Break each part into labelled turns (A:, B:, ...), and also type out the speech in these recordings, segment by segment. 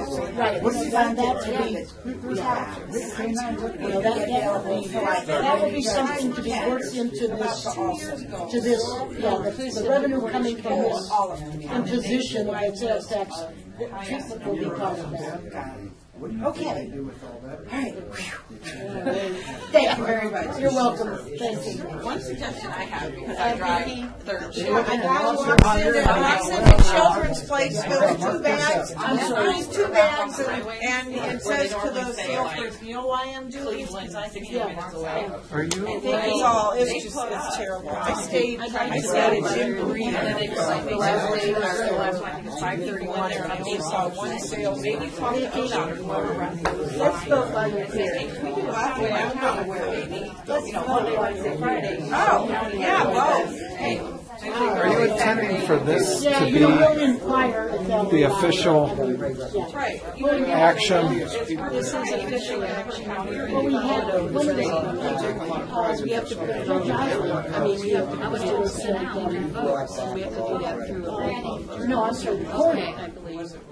A: Right, we can find that to be, well, that, that would be, that would be something to be worked into this, to this, yeah, the, the revenue coming from this imposition of the sales tax, the treatment will be part of that.
B: Okay,
A: All right.
B: thank you very much.
A: You're welcome, thank you.
C: One suggestion I have, because I drive third shift.
B: I got one sent, I got sent to Children's Place, there was two bags, there was two bags, and, and it says to the Salesforce, you know why I'm doing this? Because I think
C: minutes away.
D: Are you?
B: it's all, it's just, it's terrible. I stayed, I stayed at Jim Breeden, and it was like,
C: The last day, or the last one, I think it's five thirty-one, they're on
B: I
C: the
B: saw one sales.
C: Maybe talk to Aisha, whoever runs the
A: Let's go by the
C: I'm not aware, maybe, you know, Monday, Wednesday, Friday.
B: Oh, yeah, well,
D: Are you intending for this
A: Yeah,
D: to
A: you don't
D: be
A: inquire if they'll.
D: the official
C: Right.
D: action?
C: This is official action.
A: Well, we had, one of the, uh, we have to, put it on Joshua. I mean, we have to. put it on Senate.
C: We have to do that through a.
A: No, I'm sorry, the court.
C: I believe.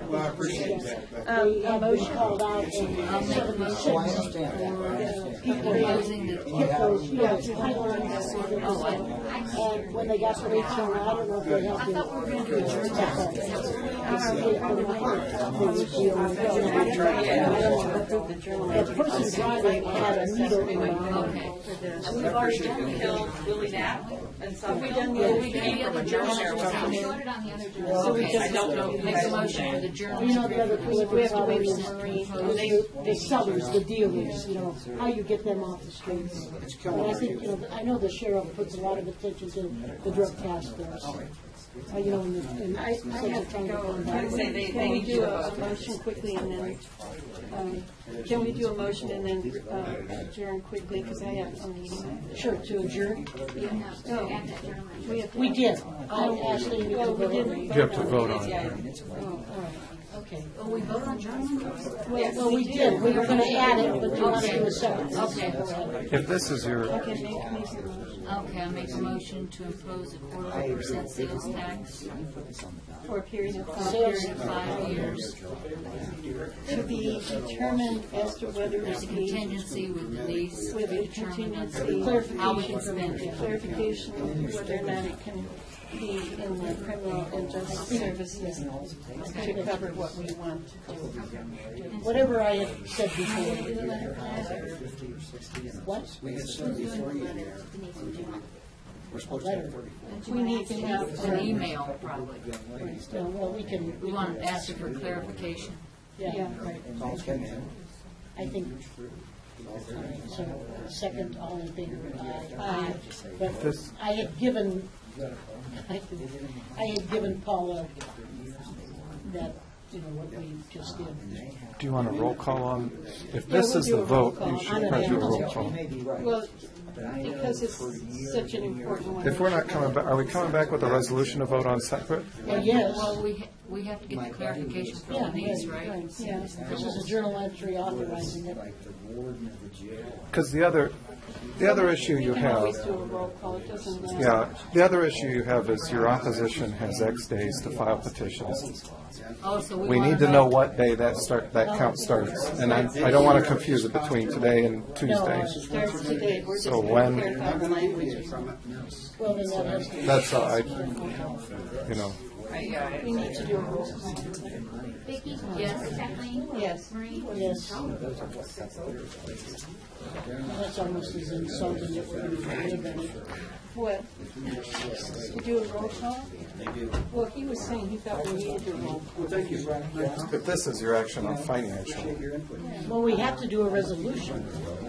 E: Well, I appreciate that. but-
A: The uh, motion called out in seventy-six. People using the. Hippos, yeah, it's high lines, so they're just- And when they got to reach out, I don't know if they helped you. I thought we were gonna do a jury The person driving had a needle in her eye.
C: We've already killed Willie Knapp and some. We done, we came from a German airline.
F: voted on the other jury.
C: I don't know. if you guys-
A: You know, the other thing that we have to wait is the, the sellers, the dealers, you know, how you get them off the streets. And I think, you know, I know the sheriff puts a lot of attention to the drug task force. Uh, You know, and, the- and I, I have trying to find
C: I'd say
A: out.
C: they, they need to.
G: motion quickly and then, um, can we do a motion and then uh, adjourn quickly, because I have a meeting.
A: Sure, to adjourn.
G: We have,
A: We did. I'm asking you to
G: well, we
A: vote.
G: didn't.
D: You have to vote on it.
A: Okay.
F: we vote on German?
A: Well, well, we did. We were gonna add it, but you want to do a separate. Okay.
D: If this is your,
G: Okay, make, make the motion
F: Okay, I make a motion to impose a quarter percent sales tax
G: for a period of five
F: for
G: years,
F: five years,
G: to be determined as to whether
F: there's
G: it's
F: a
G: a
F: contingency with Denise.
G: with a contingency.
F: How we can spend it.
G: Clarification of whether or not it can be in the criminal and justice services to cover what we want.
A: Whatever I had said before. What?
E: We had said before you, we're supposed to have thirty-four.
G: We need to have
F: An email, probably.
A: No, Well, we can,
F: We want to ask her for clarification.
A: yeah, right.
E: All in.
A: I think, so, second, all in favor, aye. Aye. But
D: This-
A: I had given, I I had given Paula that, you know, what we just did.
D: do you want a roll call on? If this is the vote, you should probably do a roll call.
G: Well, because it's such an important one.
D: If we're not coming back, are we coming back with a resolution to vote on separate?
A: Well, yes,
F: Well, we, ha- we have to get the clarification from
A: Yeah,
F: Denise,
A: right,
F: right?
A: right. this is a journal entry authorizing it.
E: Like the warden of the jail.
D: Because the other, the other issue you
G: We can always
D: have,
G: do a roll call, it doesn't matter.
D: yeah, the other issue you have is your opposition has X days to file petitions.
F: Oh, so we
D: We
F: want
D: need to know what day that start, that count starts. And I, I don't want to confuse it between today and
A: uh,
D: Tuesday.
G: It Starts today, we're just
D: So
G: going
D: when-
G: to clarify the language.
A: Well, then that has to be.
D: That's all I, you know.
G: We need to do a roll call.
F: Vicki? Yes. Kathleen?
G: Yes.
F: Maureen?
A: Yes. That's almost as insulting if we're going to anybody.
G: What? To do a roll call? Well, he was saying he thought we needed a roll call.
D: If this is your action on financial,
A: Well, we have to do a resolution.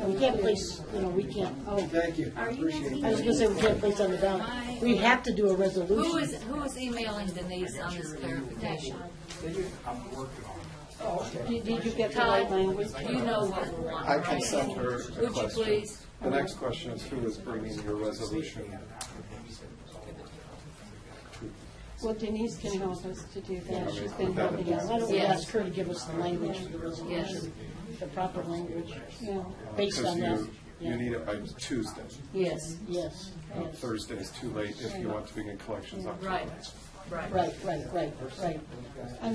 A: We can't place, you know, we can't, oh,
E: Thank you, I appreciate it.
A: I was gonna say we can't place on the ballot. We have to do a
F: Who
A: resolution.
F: is, who is emailing Denise on this clarification? Oh,
G: Did did you get the right language?
F: You know what we want,
D: I
F: right?
D: can send her a
F: Would you
D: question.
F: please?
D: The next question is who is bringing your resolution?
G: Well, Denise can help us to do that, she's been helping
A: Yeah, why
G: us.
A: don't we ask her to give us the language of the
F: Yes.
A: resolution, the proper language,
E: Uh,
G: Yeah.
A: based
D: Because
A: on that?
D: you, you need it by Tuesday.
G: Yes.
A: Yes,
D: Uh,
A: yes.
D: Thursday is too late if you want to begin collections on
F: Right, right.
A: Right, right, right, right.